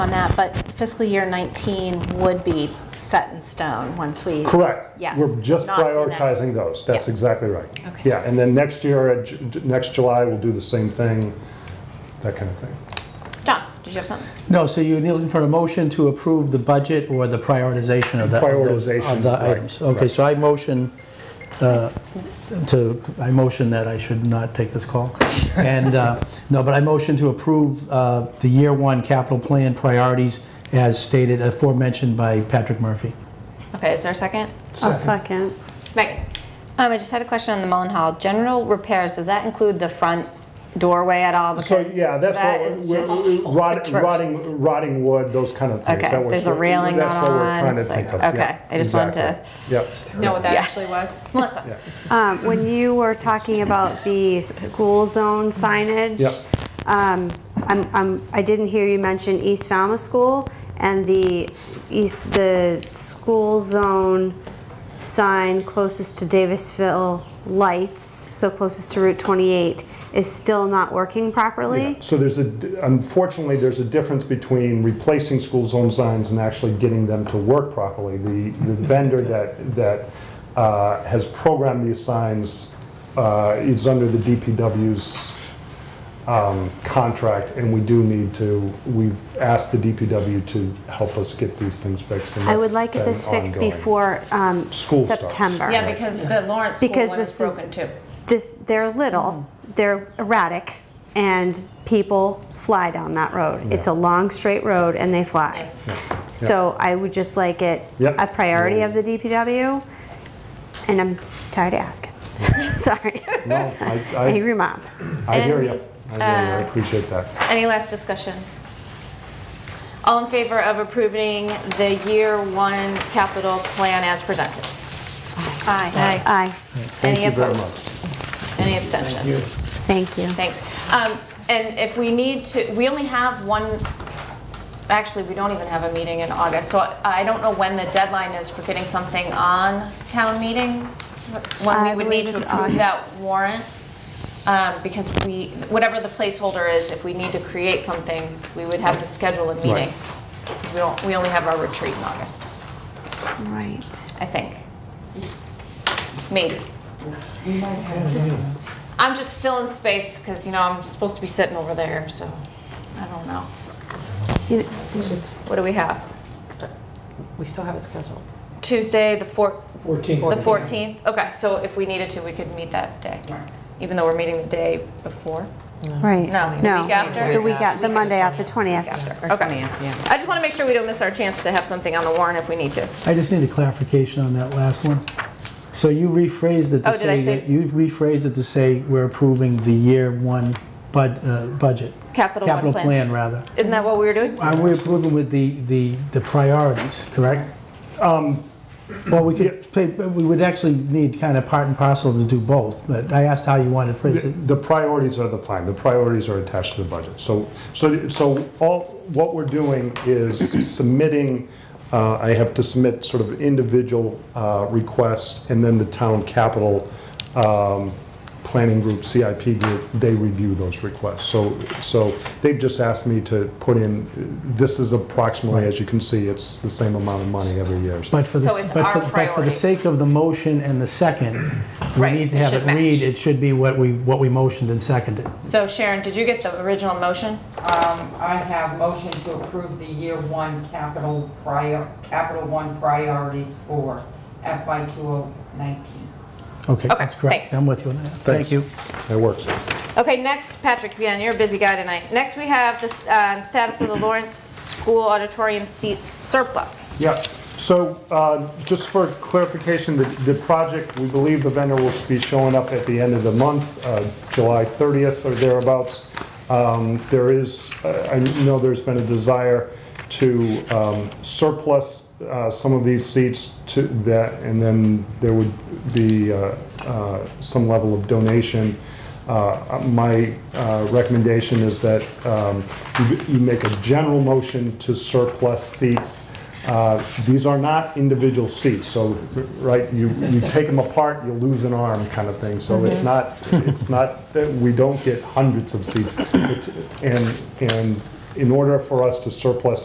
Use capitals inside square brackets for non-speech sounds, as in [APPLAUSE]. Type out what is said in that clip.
on that, but fiscal year 19 would be set in stone once we. Correct. Yes, We're just not the next- prioritizing those. That's Yeah. exactly right. Okay. Yeah, and then next year, uh, Ju- Ju- next July, we'll do the same thing, that kind of thing. John, did you have something? No, so you're looking for a motion to approve the budget or the prioritization of the... Prioritization, Of the right, items. Okay, so I motion uh, to, I motion that I should not take this [LAUGHS] call. And, uh, no, but I motion to approve uh, the year one capital plan priorities as stated, uh, aforementioned by Patrick Murphy. Okay, is there a second? I'll second. Megan? Um, I just had a question on the Mullen Hall. General repairs, does that include the front doorway at all? So, Because yeah, that's that what, is we're- just rotting, atrocious. rotting, rotting wood, those kind of things. Okay, That was- there's a railing That's what going we're on. trying to It's think of, like- yeah. okay, I just wanted to- Exactly. Yep. Know what that Yeah. actually was? [LAUGHS] Melissa? Um, When you were talking about the school zone signage. Yep. um, I'm- I'm- I didn't hear you mention East Falmouth School and the east, the school zone sign closest to Davisville Lights, so closest to Route 28, is still not working properly. So there's a, unfortunately, there's a difference between replacing school zone signs and actually getting them to work properly. The, the vendor that, that uh, has programmed these signs uh, is under the DPW's um, contract, and we do need to, we've asked the DPW to help us get these things fixed. and I would that's like been this fixed ongoing. before um, School starts. September. Yeah, because the Lawrence School Because one is this is- broken too. Mm-hmm. this they're little, they're erratic, and people fly down that road. It's a long straight road, and they fly. So I would just like it Yep. a priority of the DPW, and I'm tired of asking. [LAUGHS] Sorry, No, [LAUGHS] I, I, angry mom. I hear you. And, I hear you. I uh, appreciate that. Any last discussion? All in favor of approving the year one capital plan as presented? Aye. Aye, Thank Any you very opposed? Any abstentions? thank you. Thanks. Um, And if we need to, we only have one, actually, we don't even have a meeting in August, so I- I don't know when the deadline is for getting something on town meeting, when we I would believe need to it's approve that August. warrant, Um, because we, whatever the placeholder is, if we need to create something, we would have to schedule a meeting. 'Cause we don't, we only have our retreat in August, Right. I think. Maybe. I'm just filling space because, you know, I'm supposed to be sitting over there, so I don't know. You- It's, What do we have? we still have it scheduled. Tuesday, the four, the 14th. 14th? Okay, so if we needed to, we could meet that day, even though we're meeting the day before, Right. No, the No. week after? The week after, the Monday after, 20th. after. Or Okay. 20th, yeah. I just want to make sure we don't miss our chance to have something on the warrant if we need to. I just need a clarification on that last one. So you rephrased it Oh, to did I say say- that, you rephrased it to say we're approving the year one bud, uh, budget. Capital one Capital plan. plan, rather. Isn't that what we were doing? Are we approving with the, the, the priorities, correct? Well, we could, play- but we would actually need kind of part and parcel to do both, but I asked how you wanted to phrase it. The priorities are the fine, the priorities are attached to the budget. So, so, so all, what we're doing is submitting, uh, I have to submit sort of individual uh, requests, and then the town capital um, planning group, CIP group, they review those requests. So, so they've just asked me to put in, this is approximately, as you can see, it's the same amount of money every year. But for the, So it's but our for, but for the priorities. sake of the motion and the second, we Right, need to it have should it read, match. it should be what we, what we motioned and seconded. So Sharon, did you get the original motion? Um, I have motion to approve the year one capital prior, capital one priorities for FY 2019. Okay, Okay, that's correct. thanks. I'm with you on that. Thank Thanks. you. That works. Okay, next, Patrick, yeah, you're a busy guy tonight. Next, we have the um, status of the Lawrence School auditorium seats surplus. Yeah, so uh, just for clarification, the- the project, we believe the vendor will be showing up at the end of the month, uh, July 30th or thereabouts. Um, There is, uh, I know there's been a desire to um, surplus uh, some of these seats to that, and then there would be uh, uh, some level of donation. Uh, My uh, recommendation is that um, you you make a general motion to surplus seats. Uh, These are not individual seats, so, right, you, you take them apart, you lose an arm kind of thing. So it's not, it's not, that we don't get hundreds of seats. It- And, and in order for us to surplus